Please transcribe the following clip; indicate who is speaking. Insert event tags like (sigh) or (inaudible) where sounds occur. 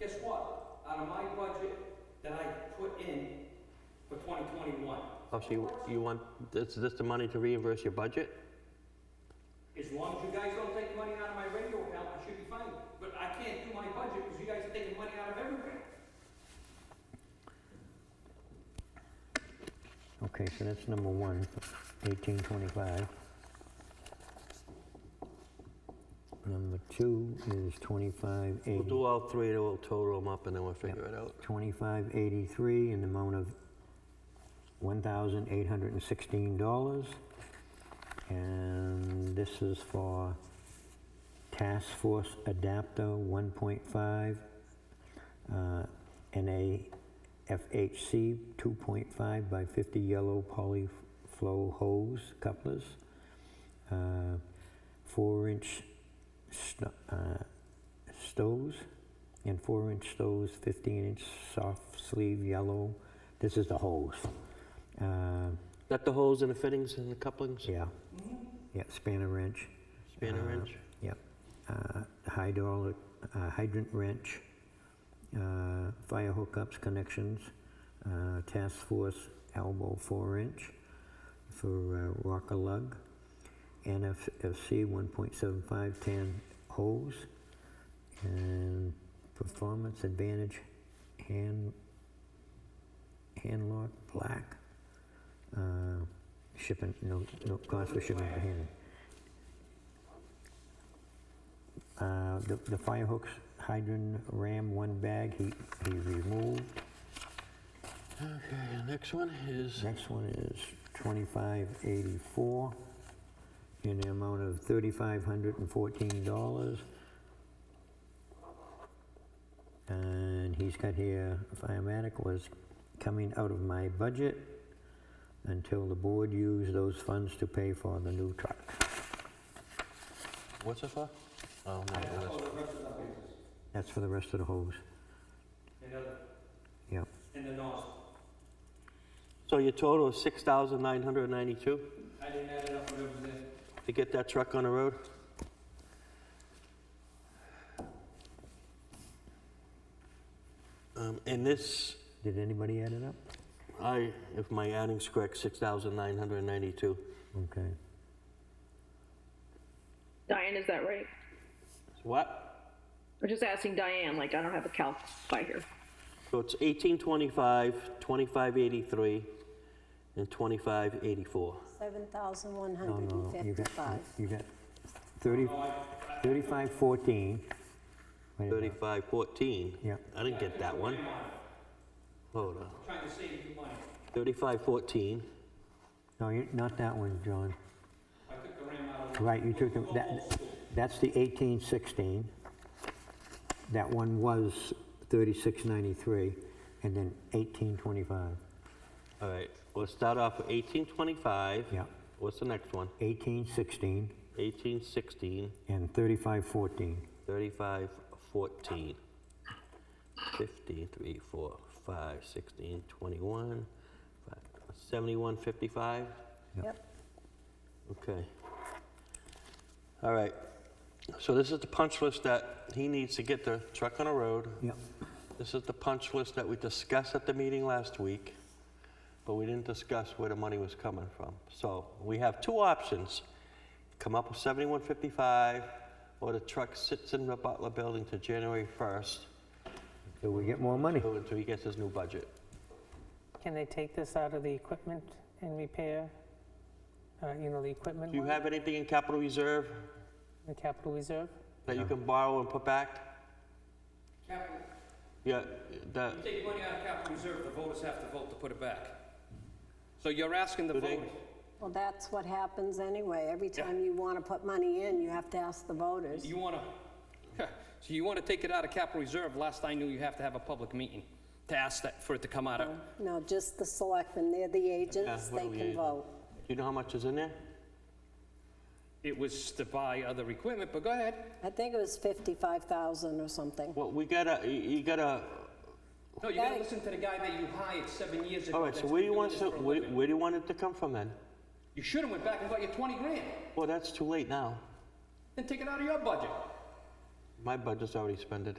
Speaker 1: Guess what? Out of my budget that I put in for 2021,
Speaker 2: Oh, so you, you want, is this the money to reimburse your budget?
Speaker 1: as long as you guys don't take money out of my radio account, I should be fine. But I can't do my budget because you guys are taking money out of everywhere.
Speaker 2: Okay, so that's number one, eighteen twenty-five. Number two is twenty-five
Speaker 3: We'll
Speaker 2: eighty,
Speaker 3: do all three, then we'll total them up, and then we'll figure it out.
Speaker 2: twenty-five eighty-three in the amount of one thousand eight hundred and sixteen dollars. And this is for Task Force Adapter one point five, uh, NAFHC two point five by fifty yellow polyflow hose couplers. Uh, four-inch sto- uh, stoves and four-inch stoves, 15-inch soft sleeve yellow. This is the hose. Uh,
Speaker 3: Got the holes and the fittings and the couplings,
Speaker 2: yeah, yeah, spanner wrench.
Speaker 3: spanner
Speaker 2: Uh,
Speaker 3: wrench?
Speaker 2: Yep. Uh, hydraulic, uh, hydrant wrench, uh, fire hookups, connections, uh, task force elbow four inch for uh, rocker lug, NFFC 1.75 tan hose, and performance advantage hand handlock black. Uh, shipping no no cost for shipping and handling. Uh, the, the fire hooks, hydrant, ram, one bag, he, he removed.
Speaker 3: Okay, next one is,
Speaker 2: Next one is 2584 in the amount of $3,514. And he's got here, firematic was coming out of my budget until the board used those funds to pay for the new truck.
Speaker 3: what's it for? Oh, no,
Speaker 1: That's all
Speaker 3: that's,
Speaker 1: the rest of our business.
Speaker 2: That's for the rest of the hose.
Speaker 1: And other,
Speaker 2: Yep.
Speaker 1: and the nozzle.
Speaker 3: so your total is six thousand nine hundred ninety-two
Speaker 1: I didn't add it up when it was in.
Speaker 3: to get that truck on the road? Um, and this,
Speaker 2: Did anybody add it up?
Speaker 3: I, if my adding's correct, six thousand nine hundred ninety-two.
Speaker 2: Okay.
Speaker 4: Diane, is that right?
Speaker 3: What?
Speaker 4: I'm just asking Diane, like, I don't have a calc by here.
Speaker 3: So it's eighteen twenty-five, twenty-five eighty-three, and twenty-five eighty-four.
Speaker 2: No, no, you got,
Speaker 5: 7,155.
Speaker 2: you got 30, 3514. Wait a minute.
Speaker 3: Thirty-five fourteen?
Speaker 2: Yeah.
Speaker 3: I didn't get that one. Hold on.
Speaker 1: Trying to save you money.
Speaker 3: Thirty-five fourteen.
Speaker 2: No, you not that one, John.
Speaker 1: I took the ram out of.
Speaker 2: Right, you took, the-
Speaker 1: Go
Speaker 2: that,
Speaker 1: old school.
Speaker 2: that's the 1816. That one was 3693, and then 1825.
Speaker 3: All right, we'll start off with eighteen twenty-five.
Speaker 2: Yeah.
Speaker 3: What's the next one?
Speaker 2: 1816
Speaker 3: Eighteen sixteen,
Speaker 2: and 3514.
Speaker 3: thirty-five fourteen. Fifteen, three, four, five, sixteen, twenty-one, five, seventy-one fifty-five?
Speaker 5: Yep.
Speaker 3: Okay. All right. So this is the punch list that he needs to get the truck on the road.
Speaker 2: Yep,
Speaker 3: This is the punch list that we discussed at the meeting last week, but we didn't discuss where the money was coming from. So we have two options. Come up with 7155, or the truck sits in the Butler building to January 1st,
Speaker 2: so we get more money.
Speaker 3: until he gets his new budget.
Speaker 6: Can they take this out of the equipment and repair, uh, you know, the equipment
Speaker 3: Do you
Speaker 6: line,
Speaker 3: have anything in capital reserve
Speaker 6: the capital reserve?
Speaker 3: that you can borrow and put back?
Speaker 1: Capital,
Speaker 3: Yeah, that,
Speaker 1: you take money out of capital reserve, the voters have to vote to put it back. So you're asking the
Speaker 3: Do they-
Speaker 1: voters.
Speaker 5: Well, that's what happens anyway. Every time you want to put money in, you have to ask the voters.
Speaker 1: You want to, (laughs) so you want to take it out of capital reserve? Last I knew, you have to have a public meeting to ask that, for it to come out of.
Speaker 5: No, just the selectmen, they're the agents,
Speaker 3: what
Speaker 5: they
Speaker 3: are we
Speaker 5: can
Speaker 3: agent?
Speaker 5: vote.
Speaker 3: do you know how much is in there?
Speaker 1: It was to buy other equipment, but go ahead.
Speaker 5: I think it was 55,000 or something.
Speaker 3: Well, we gotta, you- you gotta,
Speaker 1: No, you gotta
Speaker 5: Right.
Speaker 1: listen to the guy that you hired seven years ago.
Speaker 3: all right, so
Speaker 1: that's
Speaker 3: where do
Speaker 1: been
Speaker 3: you want
Speaker 1: doing
Speaker 3: it,
Speaker 1: this for
Speaker 3: to-
Speaker 1: a
Speaker 3: where
Speaker 1: living.
Speaker 3: where do you want it to come from then?
Speaker 1: You should have went back and got your 20 grand,
Speaker 3: Well, that's too late now.
Speaker 1: then take it out of your budget.
Speaker 3: My budget's already expended.